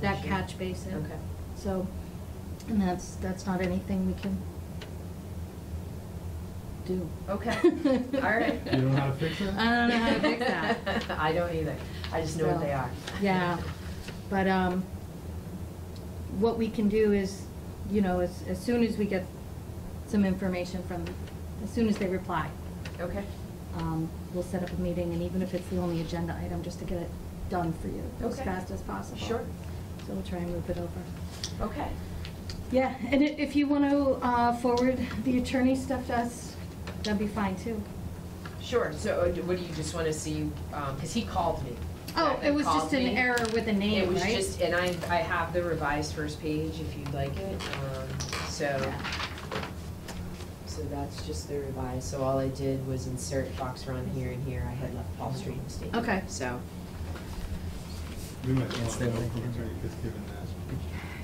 that catch basin. Okay. So, and that's, that's not anything we can do. Okay. All right. You don't know how to fix it? I don't know how to fix that, I don't either. I just know So, what they are. yeah. But, um, what we can do is, you know, as, as soon as we get some information from, as soon as they reply, Okay. um, we'll set up a meeting, and even if it's the only agenda item, just to get it done for you as Okay. fast as possible. Sure. So we'll try and move it over. Okay. Yeah, and i- if you want to forward the attorney stuff to us, that'd be fine too. Sure. So uh, what do you just want to see? Because he called me. Oh, it was just Called an me. error with a It name, was right? just, and I, I have the revised first page if you'd like it. Um, So, Yeah. so that's just the revised. So all I did was insert Fox Run here and here. I had left Paul Street mistaken. Okay. So, We might It's want to the know link. from attorney, just given that,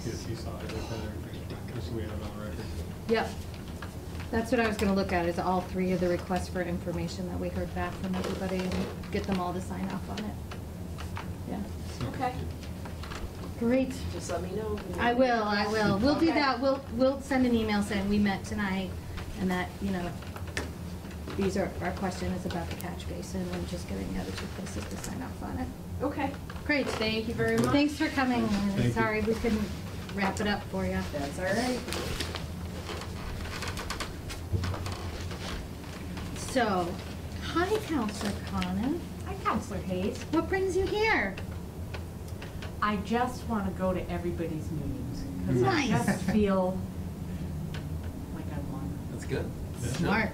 because he saw it, that everything's fine, just so we have it on record. Yep. That's what I was going to look at, is all three of the requests for information that we heard back from everybody and get them all to sign off on it. Yeah, So- Okay. great. just let me know. I will, I will. We'll do Okay. that. We'll, we'll send an email saying we met tonight and that, you know, these are, our question is about the catch basin and just getting the other two places to sign off on it. Okay. Great. Thank you very much. Thanks for coming. Thank you. Sorry we couldn't wrap it up for you. That's all right. So, hi Counselor Connor. Hi, Counselor Hayes. What brings you here? I just want to go to everybody's meetings because I Nice. just feel like I want. That's good. Yeah. Smart.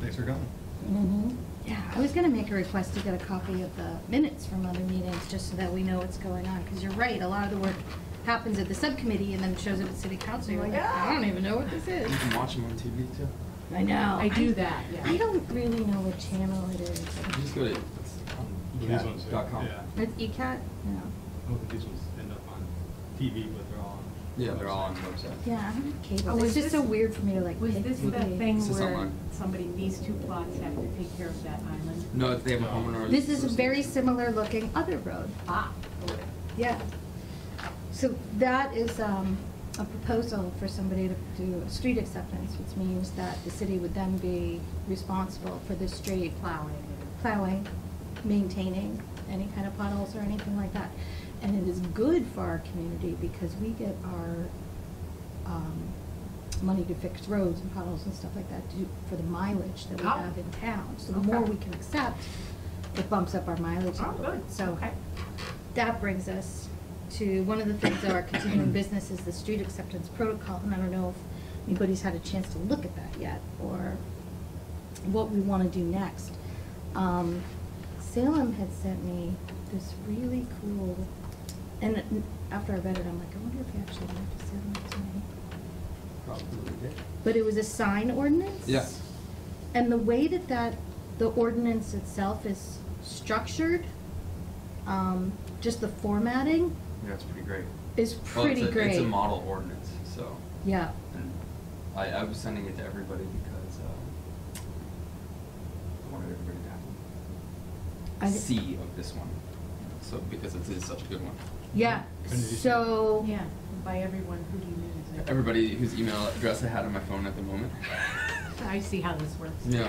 Thanks for coming. Mm-hmm. Yeah, I was gonna make a request to get a copy of the minutes from other meetings, just so that we know what's going on, because you're right, a lot of the work happens at the subcommittee and then shows up at city council, you're like, I don't even know what this You is. can watch them on TV too. I know. I do that, yeah. I don't really know what channel it is. You just go to These ones, yeah, cat.com. yeah. It's E ECAT? No. Hope that these ones end up on TV, but they're all on. Yeah, they're all on the website. website. Yeah, I don't have cable. Oh, It's is just so this- weird for me to like. Was pick this the movies. thing This is where online. somebody, these two plots have to take care of that island? No, they have a homeowner. This is a very association. similar looking other road. Ah, okay. Yeah. So that is um, a proposal for somebody to do a street acceptance, which means that the city would then be responsible for the street plowing. plowing, maintaining any kind of potholes or anything like that. And it is good for our community because we get our um, money to fix roads and potholes and stuff like that to, for the mileage that we Oh. have in town. So the more Okay. we can accept, it bumps up our mileage. a Oh, little bit. good. So Okay. that brings us to, one of the things of our continuing business is the street acceptance protocol. And I don't know if anybody's had a chance to look at that yet or what we want to do next. Um, Salem had sent me this really cool, and n- after I read it, I'm like, I wonder if he actually went to Salem tonight. Probably did. But it was a sign ordinance? Yeah. And the way that that, the ordinance itself is structured, um, just the formatting Yeah, it's pretty great. is Well, it's pretty a- great. It's a model ordinance, so, Yeah, and I, I was sending it to everybody because, uh, I wanted everybody to I- have a C of this one. So, because it is such a good one. yeah, When did you see it? so. Yeah, by everyone, who do you mean? is it? Everybody whose email address I had on my phone at the moment. I see how this works. Yeah.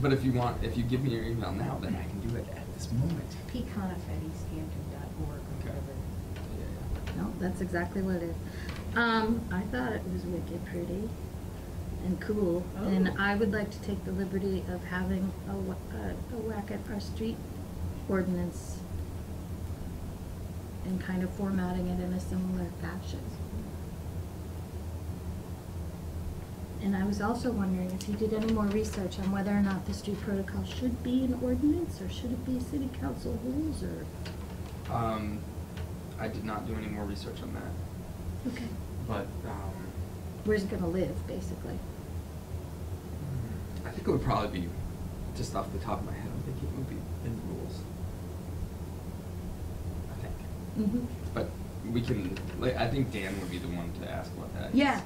But if you want, if you give me your email now, then I can do it at this moment. Pecanafettyscanton.org or Okay. whatever. Yeah, yeah. No, that's exactly what it is. Um, I thought it was wicked pretty and cool, and Oh. I would like to take the liberty of having a, wha- a, a whack at our street ordinance and kind of formatting it in a similar fashion. And I was also wondering if you did any more research on whether or not the street protocol should be an ordinance, or should it be city council rules, or, Um, I did not do any more research on that, okay, but um, where's it gonna live, basically? I think it would probably be just off the top of my head. I think it would be in rules. I think, Mm-hmm. but we can like I think Dan would be the one to ask about that. Yeah,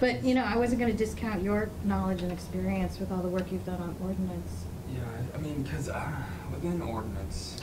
but you know, I wasn't gonna discount your knowledge and experience with all the work you've done on ordinance. Yeah, I- I mean, because uh, within ordinance,